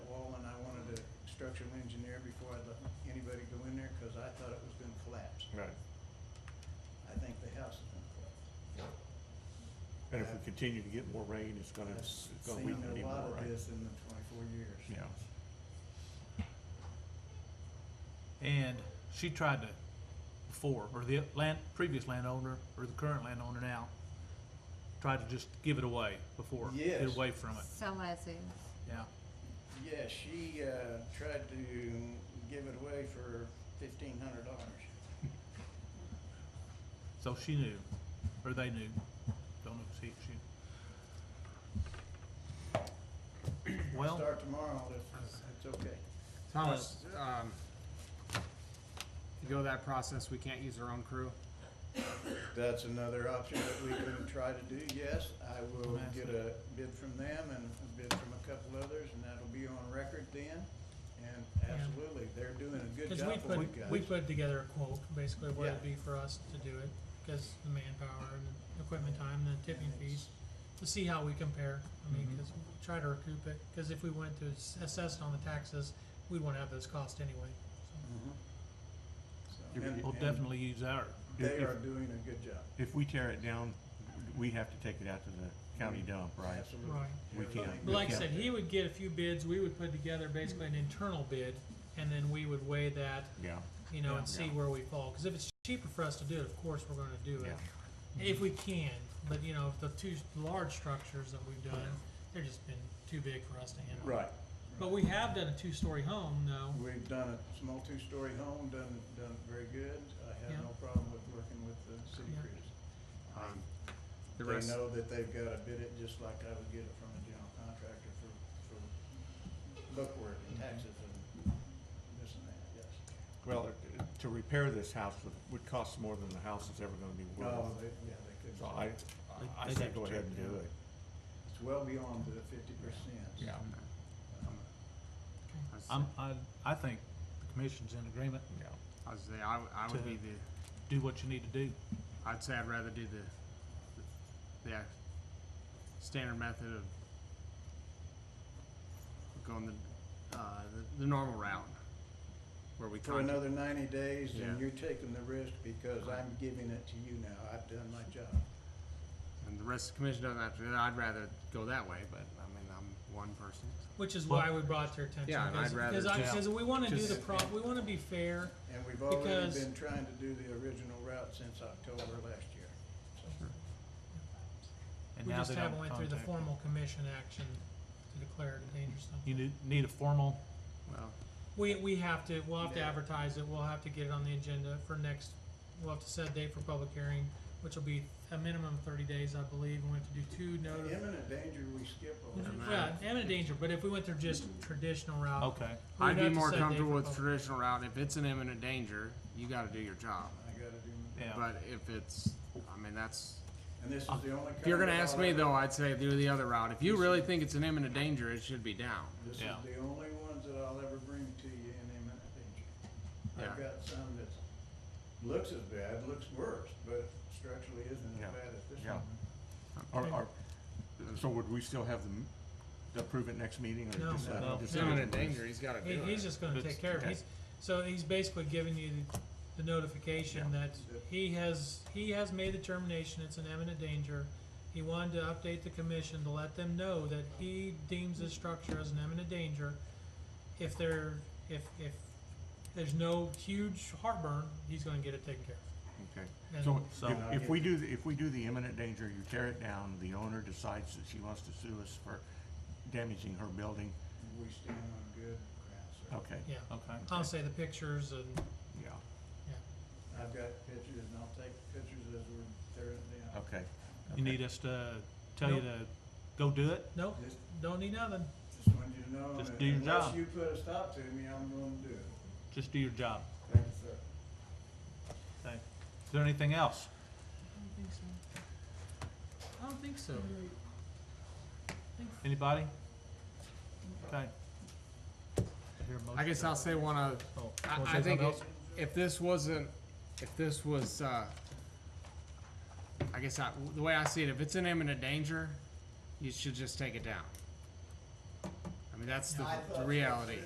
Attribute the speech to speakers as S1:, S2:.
S1: structural engineer before I let anybody go in there, cause I thought it was gonna collapse.
S2: Right.
S1: I think the house is gonna collapse.
S2: And if we continue to get more rain, it's gonna,
S1: I've
S2: it's gonna weaken it
S1: seen
S2: even
S1: a lot
S2: more,
S1: of
S2: right?
S1: this in the twenty-four years.
S2: Yeah.
S3: And she tried to, before, or the land, previous landowner, or the current landowner now, tried to just give it away before, get
S1: Yes.
S3: away from it,
S4: Sell as is.
S3: yeah.
S1: Yeah, she, uh, tried to give it away for fifteen hundred dollars.
S3: So she knew, or they knew, don't know if she, she. Well,
S1: Start tomorrow, that's, that's okay.
S5: Thomas, um, if you go that process, we can't use our own crew.
S1: That's another option that we can try to do, yes. I will
S3: Nice.
S1: get a bid from them and a bid from a couple others, and that'll be on record then. And
S6: Yeah.
S1: absolutely, they're doing a good
S6: Cause we
S1: job for you
S6: put, we
S1: guys. Uh-huh.
S6: put together a quote, basically what it'd
S1: Yeah.
S6: be for us to do it, cause the manpower and the equipment time and the tipping
S1: And
S6: fees, to see how we compare, I mean,
S1: Mm-hmm.
S3: Mhm.
S6: cause we try to recoup it, cause if we went to s- assess it on the taxes, we'd wanna have those costs anyway, so.
S1: Mhm. So, and-
S3: we'll
S1: and
S3: definitely use our,
S1: They
S2: if-
S1: are doing a good job.
S2: If we tear it down, we have to take it out to the county dump, right?
S1: Absolutely.
S6: Right.
S2: We can't-
S6: But
S2: we
S6: like I
S2: can't-
S6: said, he would get a few bids, we would put together basically an internal bid, and then we would weigh that,
S2: Yeah,
S6: you know, and
S2: Yeah.
S6: see
S2: Yeah.
S6: where we fall, cause if it's cheaper for us to do it, of course, we're gonna do it.
S2: yeah.
S6: If we can, but you know, the two large structures that we've done, they're just been too big for us to handle.
S1: Right.
S6: But we have done a two-story home though.
S1: We've done a small two-story home, done, done very good. I
S6: Yeah.
S1: have no problem with working with the city
S6: Yeah.
S1: crews.
S5: Um, The
S1: They
S5: rest,
S1: know that they've gotta bid it just like I would get it from a general contractor for, for bookwork and taxes and this and that, yes.
S2: Well, uh, to repair this house would, would cost more than the house is ever gonna be
S1: No,
S2: worth.
S1: Oh, they, yeah, they could.
S2: So I, I
S3: They'd
S2: say
S3: have to
S2: go
S3: tear
S2: ahead and
S3: it
S2: do
S3: down.
S2: it.
S1: It's well beyond the fifty percent. Um,
S2: Yeah.
S5: I was-
S3: I'm, I, I think the commission's in agreement,
S2: Yeah.
S5: I was there, I, would- I would be the,
S3: do what you need to do.
S5: I'd say I'd rather do the, the, act- standard method of going the, uh, the, the normal route, where we
S1: For
S5: contact,
S1: another ninety days,
S5: Yeah.
S1: and you're taking the risk because I'm giving it to you now. I've done my job.
S5: and the rest of the commission doesn't have to, do that. I'd rather go that way, but, I mean, I'm one person, so.
S6: Which is why we brought their attention.
S5: Yeah, and I'd
S6: because-
S5: rather
S6: Because I,
S5: just-
S6: because we wanna do the
S1: just-
S6: pro, we wanna be fair.
S1: And we've already
S6: Because-
S1: been trying to do the original route since October last year.
S3: And
S6: We
S3: now
S6: just
S3: they don't
S6: haven't went through the
S3: contact you.
S6: formal commission action to declare it a dangerous
S3: You
S6: zone.
S3: need, need a formal,
S5: Well,
S6: We, we have to, we'll have to
S1: Yeah.
S6: advertise it, we'll have to get it on the agenda for next, we'll have to set a date for public hearing, which will be a minimum of thirty days, I believe, and we have to do two notice.
S1: Imminent danger, we skip over.
S5: Mhm.
S6: Yeah, imminent danger, but if we went through just traditional route.
S3: okay,
S6: we'd
S5: Oh, I'd be
S6: have to
S5: more
S6: set a date
S5: comfortable
S6: for
S5: with
S6: public-
S5: traditional route. If it's an imminent danger, you gotta do your job.
S1: I gotta do, my-
S3: yeah.
S5: But if it's, I mean, that's,
S1: and this is the only.
S5: if you're gonna
S1: kind of
S5: ask me
S1: route-
S5: though, I'd say do the other route. If you really think it's an imminent danger, it should be down.
S1: This is
S3: Yeah.
S1: the only ones that I'll ever bring to you in imminent danger. I've
S5: Yeah.
S1: got some that looks as bad, looks worse, but structurally isn't
S2: Yeah.
S1: as bad as this
S2: Yeah.
S1: one.
S2: Or, or, so would we still have them approve it next meeting or
S6: No.
S2: just?
S3: No.
S5: If
S2: just-
S5: it's imminent danger, he's gotta
S6: He,
S5: do
S6: he's
S5: it.
S6: just gonna
S3: It's-
S6: take care of it, he's, so he's basically giving you the, the notification that he has, he has made the termination, it's an imminent danger. He wanted to update the commission to let them know that he deems this structure as an imminent danger. If there, if, if there's no huge heartburn, he's gonna get it taken care of.
S2: Okay.
S6: And-
S2: So
S3: So-
S2: if, if we do, if we do the imminent danger, you tear it down, the owner decides that she wants to sue us for damaging her building,
S1: We stand on good ground, sir.
S2: okay,
S6: Yeah,
S3: Okay,
S6: I'll say the pictures and,
S2: yeah,
S1: I've got pictures and I'll take pictures as we're tearing it down.
S2: okay.
S3: you need us to tell you to go do it?
S6: nope,
S1: Just,
S6: don't need nothing.
S1: just wanted you to know,
S3: Just
S1: that
S3: do your
S1: unless
S3: job.
S1: you put a stop to me, I'm gonna do it.
S3: Just do your job.
S1: Thank you, sir.
S3: Okay. Is there anything else?
S6: I don't think so. I don't think so.
S3: Anybody? Okay. I hear a
S5: I
S3: motion
S5: guess
S3: to-
S5: I'll say one of,
S3: Oh, wanna say
S5: I, I
S3: something
S5: think if,
S3: else?
S5: if this wasn't, if this was, uh, I guess I, the way I see it, if it's an imminent danger, you should just take it down. I mean, that's the,
S1: I thought-
S5: the reality.